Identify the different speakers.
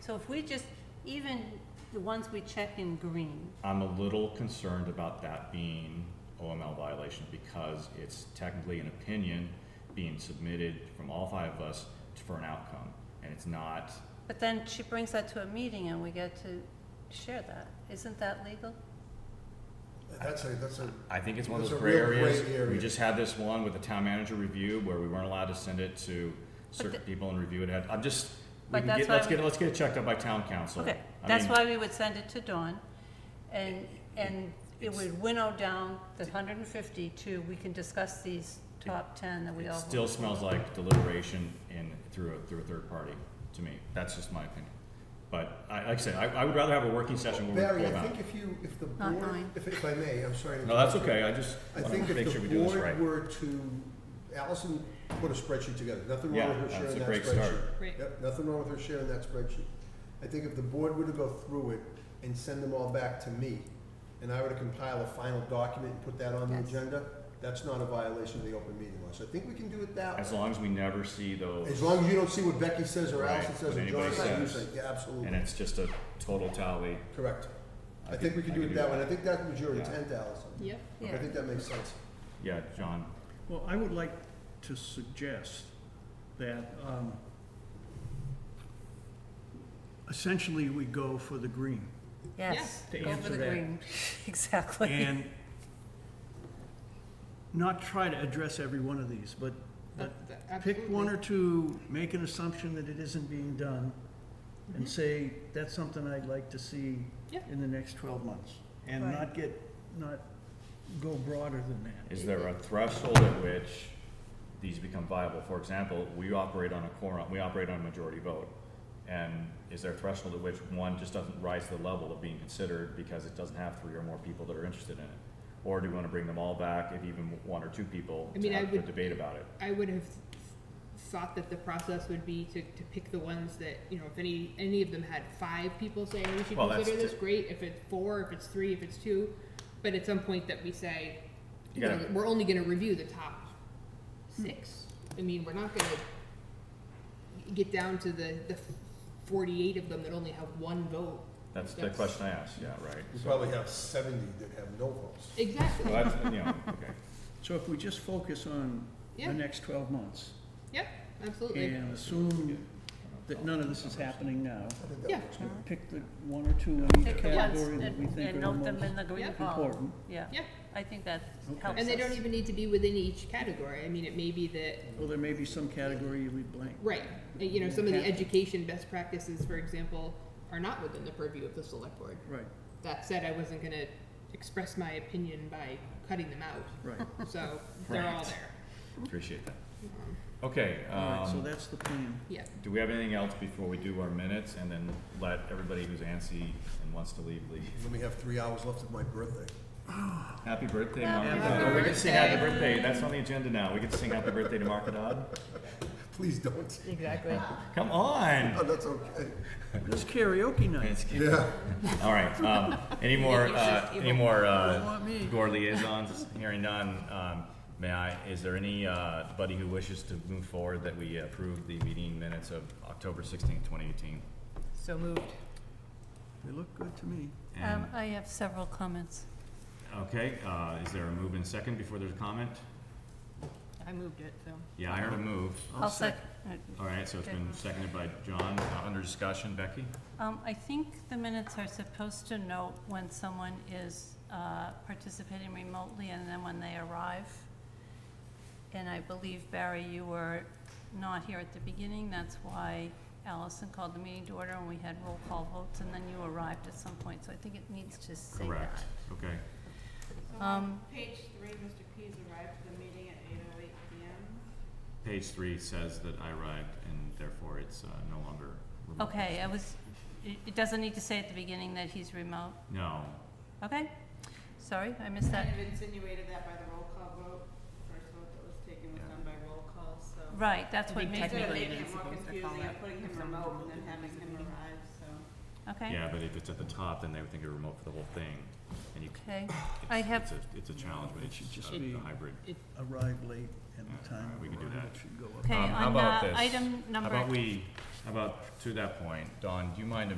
Speaker 1: So if we just, even the ones we check in green,
Speaker 2: I'm a little concerned about that being OML violation because it's technically an opinion being submitted from all five of us for an outcome. And it's not,
Speaker 1: but then she brings that to a meeting and we get to share that. Isn't that legal?
Speaker 3: That's a, that's a,
Speaker 2: I think it's one of
Speaker 3: It's
Speaker 2: those
Speaker 3: a
Speaker 2: gray
Speaker 3: real gray
Speaker 2: areas. We
Speaker 3: area.
Speaker 2: just had this one with the town manager review where we weren't allowed to send it to certain
Speaker 1: the-
Speaker 2: people and review it. I'm just, we
Speaker 1: But
Speaker 2: can
Speaker 1: that's
Speaker 2: get,
Speaker 1: why
Speaker 2: let's
Speaker 1: we-
Speaker 2: get, let's get it checked out by town council.
Speaker 1: Okay,
Speaker 2: I
Speaker 1: that's
Speaker 2: mean,
Speaker 1: why we would send it to Dawn, and, and it
Speaker 2: It's-
Speaker 1: would winnow down the hundred and fifty to, we can discuss these top ten that we
Speaker 2: It
Speaker 1: all.
Speaker 2: still smells like deliberation in, through a, through a third party, to me. That's just my opinion. But I, like I said, I, I would rather have a working session where we
Speaker 3: Barry,
Speaker 2: pull
Speaker 3: I
Speaker 2: out.
Speaker 3: think if you, if the
Speaker 1: Not
Speaker 3: board,
Speaker 1: mine.
Speaker 3: if, if I may, I'm sorry. to
Speaker 2: No, that's
Speaker 3: interrupt you.
Speaker 2: okay, I just
Speaker 3: I
Speaker 2: wanna
Speaker 3: think
Speaker 2: make sure we
Speaker 3: if the
Speaker 2: do this right.
Speaker 3: board were to, Allison put a spreadsheet together, nothing
Speaker 2: Yeah,
Speaker 3: wrong with her
Speaker 2: that's a
Speaker 3: sharing that spreadsheet.
Speaker 2: great start.
Speaker 4: Great.
Speaker 3: Yep, nothing wrong with her sharing that spreadsheet. I think if the board were to go through it and send them all back to me, and I were to compile a final document and put that on the
Speaker 1: Yes.
Speaker 3: agenda, that's not a violation of the open meeting law, so I think we can do it that way.
Speaker 2: As long as we never see those,
Speaker 3: As long as you don't see what Becky says or
Speaker 2: Right,
Speaker 3: Allison says
Speaker 2: what
Speaker 3: or John
Speaker 2: anybody
Speaker 3: says, you
Speaker 2: says.
Speaker 3: say, yeah,
Speaker 2: and
Speaker 3: absolutely,
Speaker 2: it's just a total tally.
Speaker 3: correct.
Speaker 2: I
Speaker 3: I
Speaker 2: could-
Speaker 3: think we can
Speaker 2: I
Speaker 3: do
Speaker 2: could
Speaker 3: it
Speaker 2: do
Speaker 3: that way,
Speaker 2: that.
Speaker 3: and I think that was your
Speaker 2: Yeah.
Speaker 3: intent, Allison.
Speaker 4: Yep.
Speaker 3: I think that makes sense.
Speaker 2: Yeah, John,
Speaker 5: Well, I would like to suggest that um, essentially we go for the green.
Speaker 1: Yes,
Speaker 5: Yeah, to
Speaker 1: over
Speaker 5: answer
Speaker 1: the
Speaker 5: that.
Speaker 1: green, exactly.
Speaker 5: And not try to address every one of these, but, but pick one or two, make an assumption that it isn't being done, and say, that's something I'd like to see
Speaker 4: Mm-hmm. Yeah.
Speaker 5: in the next twelve months. And
Speaker 1: Right.
Speaker 5: not get, not go broader than that.
Speaker 2: is there a threshold at which these become viable? For example, we operate on a quorum, we operate on a majority vote. And is there a threshold at which one just doesn't rise to the level of being considered because it doesn't have three or more people that are interested in it? Or do we wanna bring them all back, if even one or two people,
Speaker 4: I
Speaker 2: to
Speaker 4: mean, I
Speaker 2: have a
Speaker 4: would-
Speaker 2: debate about it?
Speaker 4: I would have thought that the process would be to, to pick the ones that, you know, if any, any of them had five people saying we should
Speaker 2: Well, that's
Speaker 4: consider this,
Speaker 2: di-
Speaker 4: great, if it's four, if it's three, if it's two, but at some point that we say,
Speaker 2: You
Speaker 4: you know,
Speaker 2: gotta-
Speaker 4: we're only gonna review the top
Speaker 5: Hmm.
Speaker 4: six. I mean, we're not gonna get down to the, the forty-eight of them that only have one vote.
Speaker 2: That's the
Speaker 4: That's-
Speaker 2: question I asked, yeah, right.
Speaker 3: We
Speaker 2: So-
Speaker 3: probably have seventy that have no votes.
Speaker 4: Exactly,
Speaker 2: Well, that's, you know, okay.
Speaker 5: So if we just focus on
Speaker 4: Yeah.
Speaker 5: the next twelve months,
Speaker 4: yep, absolutely.
Speaker 5: and assume that none of this is happening now.
Speaker 3: I think that
Speaker 4: Yeah.
Speaker 3: works.
Speaker 5: Pick the one or two in each
Speaker 1: Take the ones
Speaker 5: category that we
Speaker 1: and,
Speaker 5: think
Speaker 1: and
Speaker 5: are the
Speaker 1: note them
Speaker 5: most
Speaker 1: in the green
Speaker 4: Yep.
Speaker 1: column,
Speaker 5: important.
Speaker 1: yeah.
Speaker 4: Yeah.
Speaker 1: I think that
Speaker 5: Okay.
Speaker 1: helps
Speaker 4: And they don't
Speaker 1: us.
Speaker 4: even need to be within each category, I mean, it may be that
Speaker 5: Well, there may be some category you leave blank.
Speaker 4: Right, Uh, you know, some of the
Speaker 5: Yeah.
Speaker 4: education best practices, for example, are not within the purview of the select board.
Speaker 5: Right,
Speaker 4: That said, I wasn't gonna express my opinion by cutting them out,
Speaker 5: right.
Speaker 4: so they're all
Speaker 2: Right.
Speaker 4: there.
Speaker 2: Appreciate that. Okay,
Speaker 5: All right, so
Speaker 2: um,
Speaker 5: that's the plan.
Speaker 4: Yeah,
Speaker 2: do we have anything else before we do our minutes and then let everybody who's antsy and wants to leave, leave?
Speaker 3: Let me have three hours left of my birthday.
Speaker 2: Happy birthday,
Speaker 1: Happy
Speaker 2: Mark Dodd. Oh, we can sing happy birthday, that's on the agenda now. We get to sing happy birthday to Mark Dodd.
Speaker 3: Please don't.
Speaker 1: Exactly.
Speaker 2: Come on!
Speaker 3: Oh, that's okay.
Speaker 5: This karaoke night,
Speaker 2: It's-
Speaker 3: Yeah.
Speaker 2: All right, um, any more, uh, any more,
Speaker 5: don't
Speaker 2: uh,
Speaker 5: want me.
Speaker 2: board liaisons? Hearing none, um, may I, is there any, uh, buddy who wishes to move forward that we approve the meeting minutes of October sixteenth, twenty eighteen?
Speaker 4: so moved.
Speaker 5: They look good to me.
Speaker 1: Um, I have several comments.
Speaker 2: Okay, uh, is there a move in second before there's a comment?
Speaker 4: I moved it, so.
Speaker 2: Yeah, I heard a move.
Speaker 1: I'll sec,
Speaker 2: All right, so it's been seconded by John, Uh, under discussion, Becky?
Speaker 1: Um, I think the minutes are supposed to note when someone is, uh, participating remotely and then when they arrive. And I believe, Barry, you were not here at the beginning, that's why Allison called the meeting to order and we had roll call votes, and then you arrived at some point, so I think it needs to say that.
Speaker 2: Correct, okay.
Speaker 6: So on
Speaker 1: Um,
Speaker 6: page three, Mr. Keys arrived at the meeting at eight oh eight PM.
Speaker 2: Page three says that I arrived and therefore it's uh, no longer remote.
Speaker 1: Okay, I was, it, it doesn't need to say at the beginning that he's remote,
Speaker 2: No,
Speaker 1: okay? Sorry, I missed that.
Speaker 6: Kind of insinuated that by the roll call vote, first vote that was taken was
Speaker 2: Yeah.
Speaker 6: done by roll call, so.
Speaker 1: Right, that's what made me,
Speaker 6: Instead of
Speaker 4: Technically,
Speaker 6: making
Speaker 4: it
Speaker 6: it
Speaker 4: is
Speaker 6: more
Speaker 4: supposed to call
Speaker 6: confusing, I'm
Speaker 4: that
Speaker 6: putting him
Speaker 4: if someone
Speaker 6: remote and
Speaker 4: remote
Speaker 6: then
Speaker 4: it
Speaker 6: having
Speaker 4: as a
Speaker 6: him
Speaker 4: meeting.
Speaker 6: arrive, so.
Speaker 1: okay?
Speaker 2: yeah, but if it's at the top, then they would think you're remote for the whole thing. And you, c-
Speaker 1: Okay,
Speaker 2: it's-
Speaker 1: I have-
Speaker 2: It's a, it's a challenge, but
Speaker 5: It
Speaker 2: it's
Speaker 5: should
Speaker 2: just
Speaker 5: just
Speaker 2: a
Speaker 5: be-
Speaker 2: a hybrid.
Speaker 5: Arrive late and the
Speaker 2: Yeah, all
Speaker 5: time
Speaker 2: right, Uh, we
Speaker 5: of
Speaker 2: can do
Speaker 5: arrival
Speaker 2: that.
Speaker 5: should go up.
Speaker 1: okay,
Speaker 2: Um, how
Speaker 1: on,
Speaker 2: about
Speaker 1: uh,
Speaker 2: this?
Speaker 1: item
Speaker 2: How
Speaker 1: number
Speaker 2: about we How about, to that point, Don, do you mind